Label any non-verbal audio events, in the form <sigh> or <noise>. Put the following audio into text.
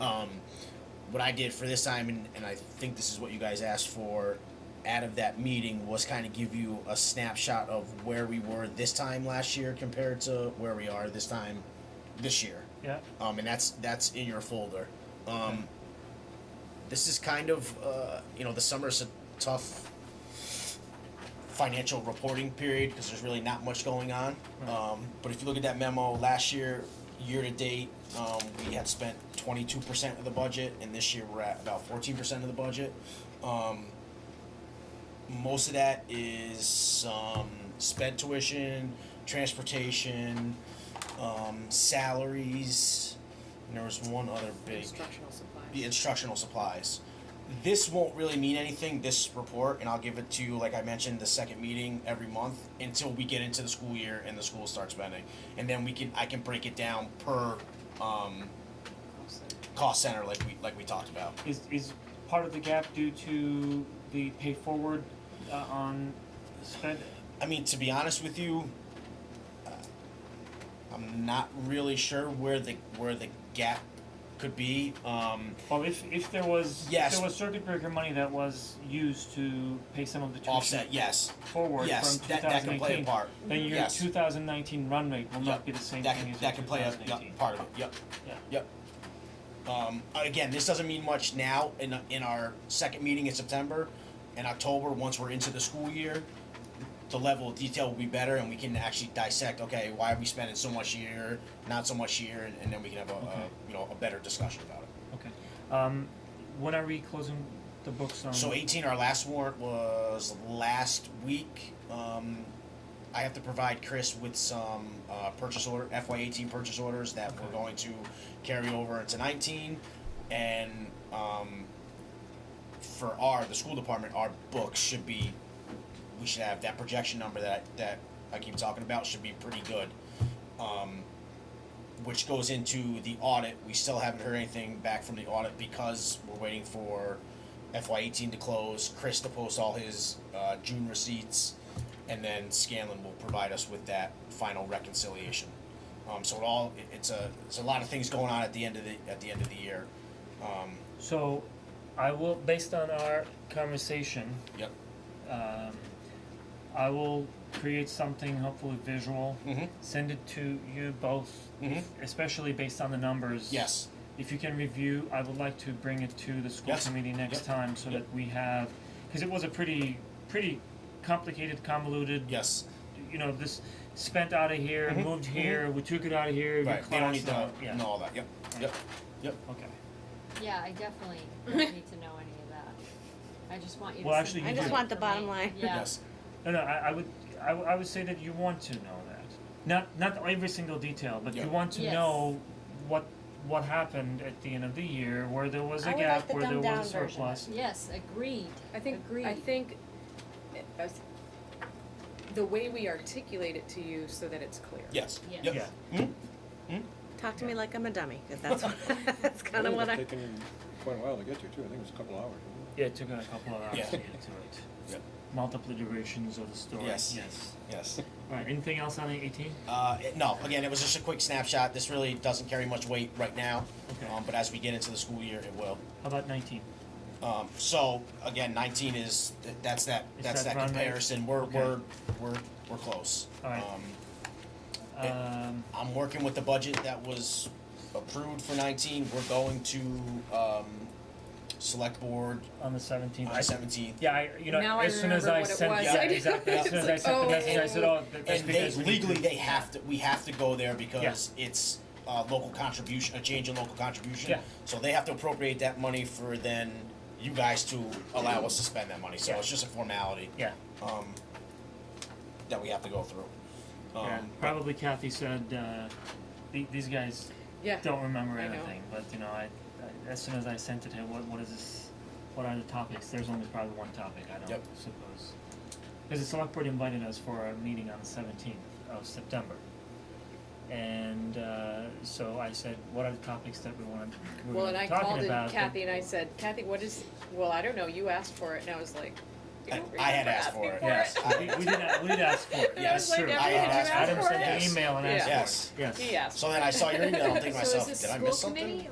Um, what I did for this time, and, and I think this is what you guys asked for out of that meeting, was kind of give you a snapshot of where we were this time last year compared to where we are this time this year. Yeah, Um, and that's that's in your folder. Um, this is kind of uh, you know the summer's a tough financial reporting period because there's really not much going on. Um, but if you look at that memo last year, year to date, um, we had spent 22% of the budget, and this year we're at about 14% of the budget. Um, most of that is um, sped tuition, transportation, um, salaries, and there was one other big Instructional supplies. the instructional supplies. This won't really mean anything, this report, and I'll give it to you, like I mentioned, the second meeting every month until we get into the school year and the school starts spending. And then we can, I can break it down per, um, cost center like we, like we talked about. is, is part of the gap due to the pay forward uh, on sped? I mean, to be honest with you, uh, I'm not really sure where the, where the gap could be. Um, Well, if, if there was, if Yes. there was circuit breaker money that was used to pay some of the tuition offset, yes, forward yes, from that, that can play a 2018, part. then your Yes. 2019 run rate will Yep. not be the same That thing can, as your that can play a 2018. yep, part of it, yep. Yeah. Yep. Um, again, this doesn't mean much now. In in our second meeting in September, in October, once we're into the school year, the level of detail will be better, and we can actually dissect. Okay, why are we spending so much here, not so much here, and, and then we can have a, Okay. a you know a better discussion about it. Okay. Um, when are we closing the books on? So eighteen, our last warrant was last week. Um, I have to provide Chris with some uh, purchase order FY eighteen purchase orders that we're Okay. going to carry over into nineteen, and um, for our the school department, our books should be we should have that projection number that that I keep talking about should be pretty good. Um, which goes into the audit. We still haven't heard anything back from the audit because we're waiting for FY18 to close, Chris to post all his uh, June receipts, and then Scanlon will provide us with that final reconciliation. Um, so it all it- it's a it's a lot of things going on at the end of the at the end of the year. Um, So, I will, based on our conversation, yep. um, I will create something hopefully visual, Mhm. send it to you both, Mhm. especially based on the numbers. Yes. If you can review, I would like to bring it to the school Yes. committee next Yep. time so Yep. that we have, because it was a pretty, pretty complicated, convoluted. Yes. You know, this spent out of here, Mhm. moved here, we took it out of here, we Right. They don't need to classed out. yeah. know all that. Yep. Yep. Okay. Yeah, I definitely <laughs> don't need to know any of that. I just want you to. Well, send actually, it you to do. I just me want the for bottom me. line. Yeah. Yes. No, no, I, I would, I, w- I would say that you want to know that. Not, not every single detail, but Yeah. you want to Yes. know what, what happened at the end of the year, where there was I a would like gap, the where there dumbed was a down version. surplus. Yes, agreed. I think, Agreed. I think, I was- the way we articulate it to you so that it's clear. Yes. Yes. Yep. Mhm. Talk to me Yeah. like I'm a dummy, 'cause that's, <laughs> what- that's kind of what I, It's taken quite a while to get to too, I think it was a couple hours. wasn't it? Yeah, it took a couple of hours Yeah. to get to it. <laughs> Yep. Multiple iterations of the story, Yes. yes. Yes. Alright, anything else on the eighteen? Uh, it- no, again, it was just a quick snapshot. This really doesn't carry much weight right now, Okay. um, but as we get into the school year, it will. How about nineteen? Um, so again, 19 is th- that's that Is that's that that, run rate? comparison. We're, Okay. we're we're we're close. All right. Um, Um, I'm working with the budget that was approved for 19. We're going to um, select board on the seventeenth. on 17th. Yeah, I, you know, Now I as soon as I remember what it sent, was. yeah, I exactly, as was soon as I like, sent the oh. message, I said, oh, that- that's And they because we need to. legally they have to we have to go there because it's uh, local contribution a change in local contribution. Yeah. So they have to appropriate that money for then you guys to allow us to spend that money. So Yeah. it's just a formality Yeah. um, that we have to go through. Um, Yeah, probably Kathy said, uh, the- these guys Yeah. don't remember I know. anything, but you know, I, I, as soon as I sent it, hey, what, what is this, what are the topics, there's only probably one topic, I don't Yep. suppose. Cause the select board invited us for a meeting on the seventeenth of September. And, uh, so I said, what are the topics that we wanna, we Well, were and I called talking in about? but- Kathy and I said, Kathy, what is, well, I don't know, you asked for it, and I was like, you I- don't I had remember asked asking for it. Yes, I- we, we did, a- we did ask for it, <laughs> And I yes, was like, true. Adam, I did you asked ask for Adam it? sent an Yes. email and Yeah. asked for it, Yes. yes. He asked so then I saw your email. I'm thinking to <laughs> So myself, is this did I miss school something? committee